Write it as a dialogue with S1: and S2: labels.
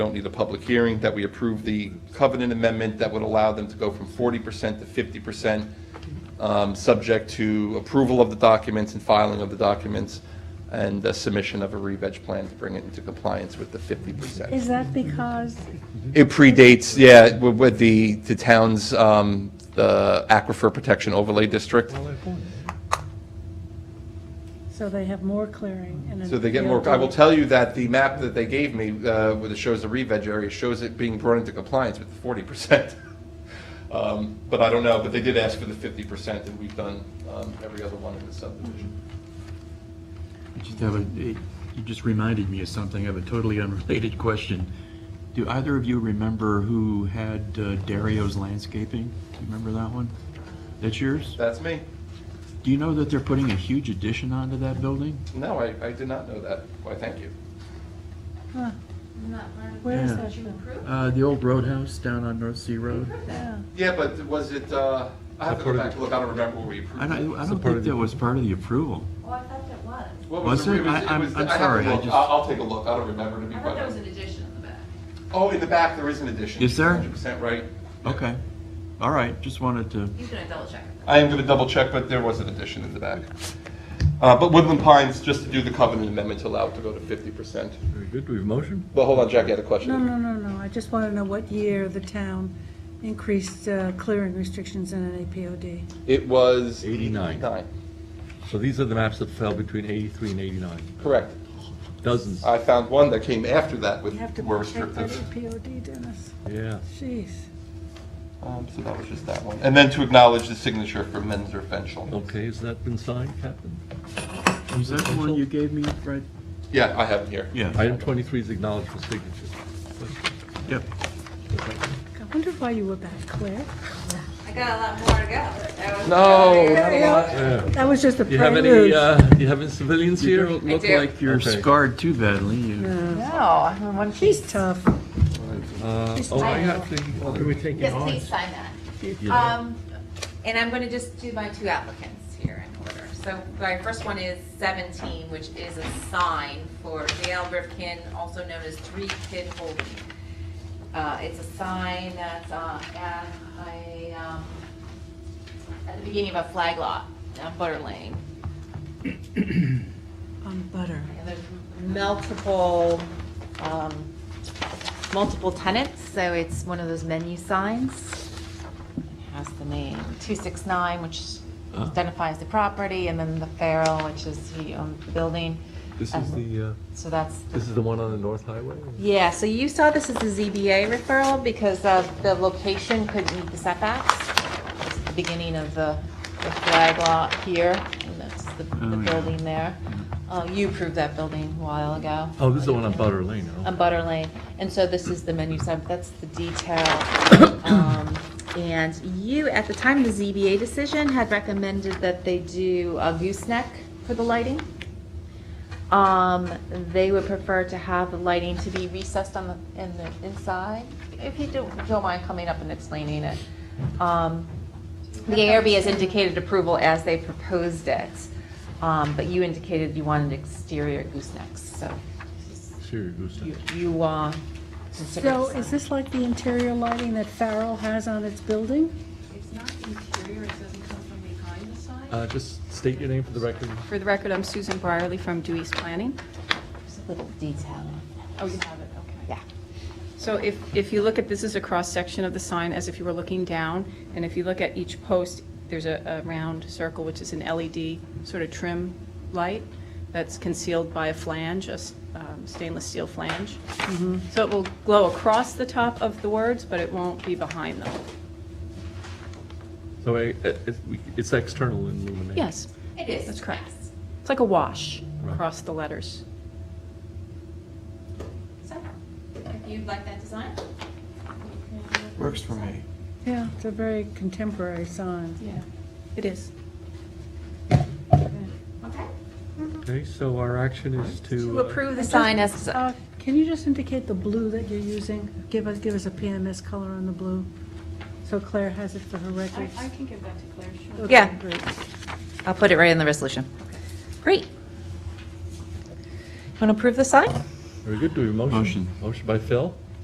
S1: don't need a public hearing, that we approve the covenant amendment that would allow them to go from 40% to 50%, um, subject to approval of the documents and filing of the documents and the submission of a re-veg plan to bring it into compliance with the 50%.
S2: Is that because,
S1: It predates, yeah, wi- with the, the town's, um, the Aquifer Protection Overlay District.
S2: so they have more clearing and.
S1: So they get more, I will tell you that the map that they gave me, uh, where it shows the re-veg area, shows it being brought into compliance with the 40%. Um, But I don't know, but they did ask for the 50%, and we've done um, every other one in the subdivision.
S3: I just have a, it- you just reminded me of something, I have a totally unrelated question. Do either of you remember who had uh, Dario's Landscaping? Do you remember that one? That's yours?
S1: That's me.
S3: Do you know that they're putting a huge addition onto that building?
S1: No, I, I did not know that. Why, thank you.
S2: Huh,
S4: Not learning.
S2: Where is
S3: Yeah.
S2: that?
S3: Uh, the old roadhouse down on North Sea Road?
S2: Yeah.
S1: Yeah, but was it, uh, I have to go back, and look, I don't remember where we
S3: I
S1: approved
S3: don't,
S1: it.
S3: I don't think that was part of the approval.
S4: Oh, I thought that was.
S1: What
S3: Was
S1: the-
S3: it?
S1: was-
S3: I- I'm-
S1: was-
S3: I'm
S1: have to
S3: sorry, I
S1: look.
S3: just-
S1: I'll, I'll take a look, I don't remember to be
S4: I thought
S1: quite
S4: that was
S1: honest.
S4: an addition in the back.
S1: Oh, in the back, there is an addition.
S3: Is there?
S1: 100% right.
S3: Okay, all right, just wanted to,
S4: He's gonna double check it.
S1: I am going to double check, but there was an addition in the back. Uh, But Woodland Pines, just to do the covenant amendment to allow it to go to 50%.
S5: Very good, do we have a motion?
S1: But hold on, Jack, I had a question.
S2: No, no, no, no, I just want to know what year the town increased uh, clearing restrictions in an APOD.
S1: It was...
S5: 89.
S1: Nine,
S5: So these are the maps that fell between 83 and 89,
S1: correct.
S5: dozens,
S1: I found one that came after that with
S2: You have to
S1: more
S2: check that
S1: restrictive.
S2: APOD, Dennis.
S5: yeah.
S2: Jeez.
S1: Um, So that was just that one. And then to acknowledge the signature for Menzer Fenchel.
S5: Okay, has that been signed, Captain?
S3: was that the one you gave me, right?
S1: Yeah, I have it here.
S3: Yeah,
S5: Item 23 is acknowledged for signature.
S3: yep.
S2: I wonder why you were back, Claire?
S4: I got a lot more to go. That was-
S1: No, not a lot.
S5: Yeah.
S2: That was just a
S5: Do you have
S2: prelude.
S5: any, uh, do you have any civilians
S3: You
S5: here?
S3: don't look
S4: do.
S3: like you're
S5: Okay.
S3: scarred too badly, you.
S2: Yeah.
S6: No, I'm one
S2: She's tough.
S5: Uh, Oh, I actually, can we take
S4: Yes, please sign that. Um, and I'm gonna just do my two applicants here in order. So my first one is seventeen, which is a sign for Dale Rifkin, also known as Three Kid Holding. Uh, it's a sign that's, uh, at a, um, at the beginning of a flag lot on Butter Lane.
S2: On butter.
S4: And there's multiple, um, multiple tenants, so it's one of those menu signs. It Has the name 269, which
S3: Ah.
S4: identifies the property, and then the Farrell, which is he owned the um, building.
S5: This is the, uh,
S4: So that's,
S5: this is the one on the North Highway?
S4: yeah, so you saw this as a ZBA referral because uh, the location couldn't meet the setbacks. It's the beginning of the the flag lot here, and that's the the
S3: Oh, yeah.
S4: building there. Uh, You approved that building a while ago.
S5: Oh, this is the one on Butter Lane, no?
S4: on Butter Lane. And so this is the menu sign, that's the detail. Um, And you, at the time of the ZBA decision, had recommended that they do a gooseneck for the lighting. Um, They would prefer to have the lighting to be recessed on the, in the inside, if you don't don't mind coming up and explaining it. Um, The ARB has indicated approval as they proposed it, um, but you indicated you wanted exterior goosenecks, so
S5: Sure, who's
S4: you,
S5: that?
S4: you, uh, consider.
S2: So is this like the interior lighting that Farrell has on its building?
S6: It's not interior, it doesn't come from behind the sign.
S5: Uh, Just state your name for the record.
S6: For the record, I'm Susan Brierly from Dewey's Planning.
S4: There's a little detail.
S6: Oh, you have it, okay.
S4: Yeah.
S6: So if, if you look at, this is a cross-section of the sign as if you were looking down, and if you look at each post, there's a, a round circle, which is an LED sort of trim light that's concealed by a flange, a s- um, stainless steel flange. So it will glow across the top of the words, but it won't be behind them.
S5: So I- it- it's- we- it's external illumination?
S6: Yes,
S4: It is.
S6: That's correct. it's like a wash
S5: Right.
S6: across the letters.
S4: So, if you'd like that design.
S3: Works for me.
S2: Yeah, it's a very contemporary sign.
S6: Yeah. It is.
S4: Okay.
S5: Okay, so our action is to...
S4: To
S5: uh,
S4: approve the sign as,
S2: Uh, Can you just indicate the blue that you're using? Give us, give us a PMS color on the blue, so Claire has it for her records.
S6: can give that to Claire, sure.
S2: Okay,
S4: Yeah.
S2: great.
S4: I'll put it right in the resolution. Great. Want to approve the sign?
S5: Very good, do we have a motion?
S3: Motion.
S5: Motion by Phil,